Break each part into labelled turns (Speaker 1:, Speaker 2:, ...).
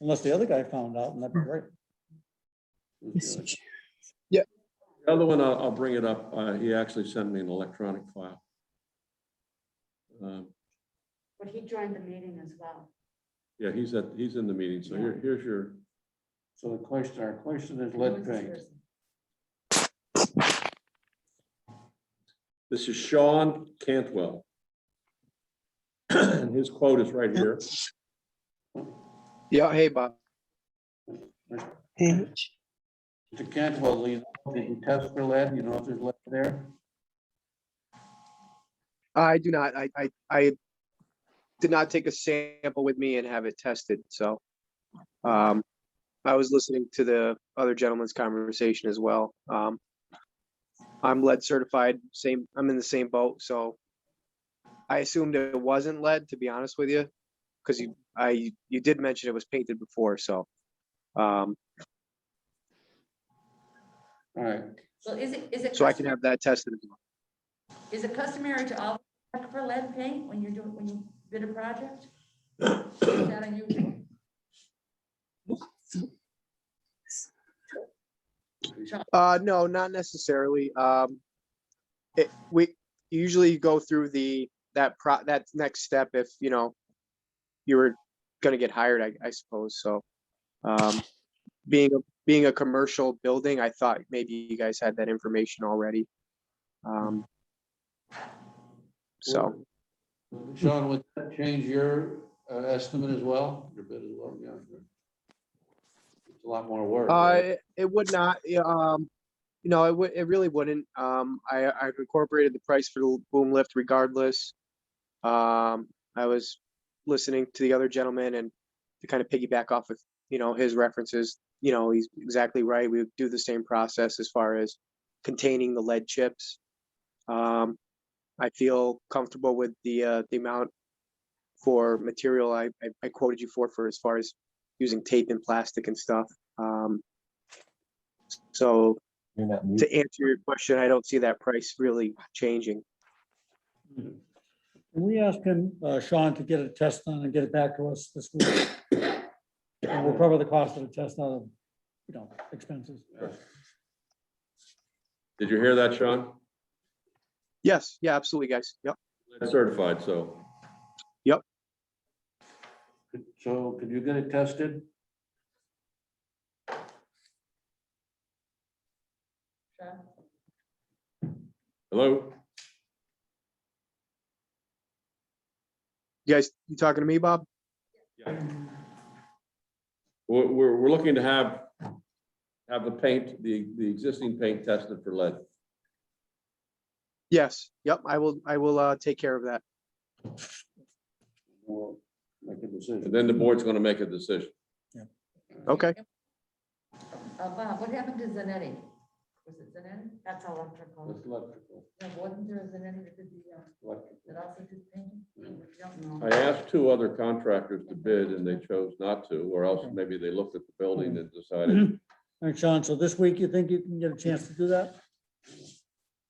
Speaker 1: Unless the other guy found out and that'd
Speaker 2: Hmm.
Speaker 1: be great.
Speaker 3: Mr. Chair.
Speaker 4: The other one, I'll, I'll bring it up. Uh, he actually sent me an electronic file. Um,
Speaker 2: But he joined the meeting as well.
Speaker 4: Yeah, he's at, he's in the meeting, so here, here's your,
Speaker 5: So the question, our question is
Speaker 2: Who
Speaker 5: lead
Speaker 2: was
Speaker 5: paint.
Speaker 2: yours?
Speaker 4: this is Sean Cantwell. And his quote is right here.
Speaker 6: Yeah, hey, Bob.
Speaker 3: Page.
Speaker 5: Mr. Cantwell, you know, did you test for lead? You know if there's lead there?
Speaker 6: I do not, I, I, I did not take a sample with me and have it tested, so. Um, I was listening to the other gentleman's conversation as well. Um, I'm lead certified, same, I'm in the same boat, so. I assumed it wasn't lead, to be honest with you, because you, I, you did mention it was painted before, so. Um,
Speaker 5: All right,
Speaker 2: Well, is it, is it?
Speaker 6: so I can
Speaker 2: custom-
Speaker 6: have that tested. as well.
Speaker 2: Is it customary to all check for lead paint when you're doing, when you bid a project? Is that unusual?
Speaker 6: Uh, no, not necessarily. Um, it, we usually go through the, that pro, that next step if, you know, you were gonna get hired, I, I suppose, so. Um, being, a- being a commercial building, I thought maybe you guys had that information already. Um. So,
Speaker 5: Sean, would that change your uh, estimate as well? Your bid as well, yeah. sure. It's a lot more work.
Speaker 6: uh,
Speaker 5: right?
Speaker 6: it- it would not, yeah, um, you know, it would, it really wouldn't. Um, I, I incorporated the price for the l- boom lift regardless. Um, I was listening to the other gentleman and to kind of piggyback off of, you know, his references, you know, he's exactly right. We would do the same process as far as containing the lead chips. Um, I feel comfortable with the, uh, the amount for material I, I- I quoted you for, for as far as using tape and plastic and stuff. Um, so to answer your question, I don't see that price really changing.
Speaker 1: Can we ask him, uh, Sean, to get a test done and get it back to us this week? And we'll cover the cost of the test out of, you know, expenses.
Speaker 4: Did you hear that, Sean?
Speaker 6: Yes, yeah, absolutely, guys. Yep.
Speaker 4: Certified, so.
Speaker 5: Could- So could you get it tested?
Speaker 4: Hello?
Speaker 6: You guys, you talking to me, Bob?
Speaker 4: We're, we're, we're looking to have, have the paint, the, the existing paint tested for lead.
Speaker 6: Yes, yep, I will, I will, uh, take care of that.
Speaker 5: We'll Make a
Speaker 4: And
Speaker 5: decision.
Speaker 4: then the board's gonna make a decision.
Speaker 6: Okay.
Speaker 2: Uh, Bob, what happened to Zanetti? Was it Zanetti? That's electrical.
Speaker 5: That's electrical,
Speaker 2: Yeah, wasn't there a Zanetti that did the, uh, that
Speaker 5: electrical.
Speaker 2: also did painting? We don't
Speaker 4: I
Speaker 2: know.
Speaker 4: asked two other contractors to bid and they chose not to, or else maybe they looked at the building and decided,
Speaker 1: All right, Sean, so this week you think you can get a chance to do that?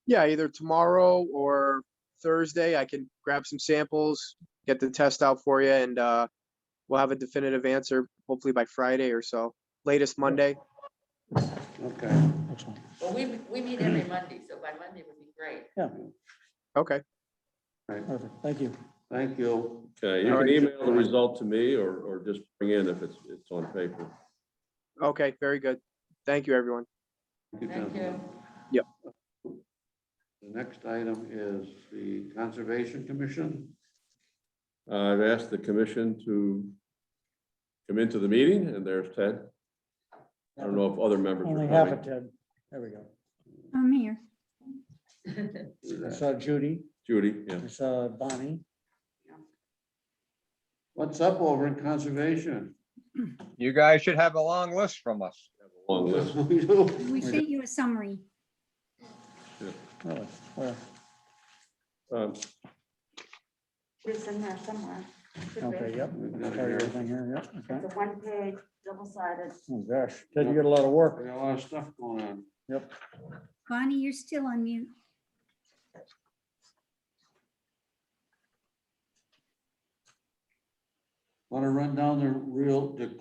Speaker 6: Yeah, either tomorrow or Thursday, I can grab some samples, get the test out for you and, uh, we'll have a definitive answer hopefully by Friday or so, latest Monday.
Speaker 5: Okay.
Speaker 1: Excellent.
Speaker 2: Well, we, we meet every Monday, so by Monday would be great.
Speaker 6: Okay,
Speaker 1: Perfect. Thank you.
Speaker 5: Thank you.
Speaker 4: okay, you can email the result to me or, or just bring in if it's, it's on paper.
Speaker 6: okay, very good. Thank you, everyone.
Speaker 2: Thank
Speaker 5: gentlemen.
Speaker 2: you.
Speaker 5: The next item is the Conservation Commission.
Speaker 4: Uh, I've asked the commission to come into the meeting and there's Ted. I don't know if other members
Speaker 1: Only
Speaker 4: are
Speaker 1: half a
Speaker 4: coming.
Speaker 1: ten. There we go.
Speaker 7: I'm here.
Speaker 1: I saw Judy,
Speaker 4: Judy, yeah.
Speaker 1: I saw Bonnie.
Speaker 5: What's up over in Conservation?
Speaker 8: You guys should have a long list from us.
Speaker 4: Long list.
Speaker 7: We sent you a summary.
Speaker 1: Oh, well,
Speaker 4: Um,
Speaker 2: It's in there somewhere. Should be.
Speaker 1: Okay, yep. I got everything here, yep, okay.
Speaker 2: It's a one-page, double-sided.
Speaker 1: Oh, gosh, Ted, you got a lot of work.
Speaker 5: We got a lot of stuff going on.
Speaker 7: Bonnie, you're still on mute.
Speaker 5: Want to run down the real, the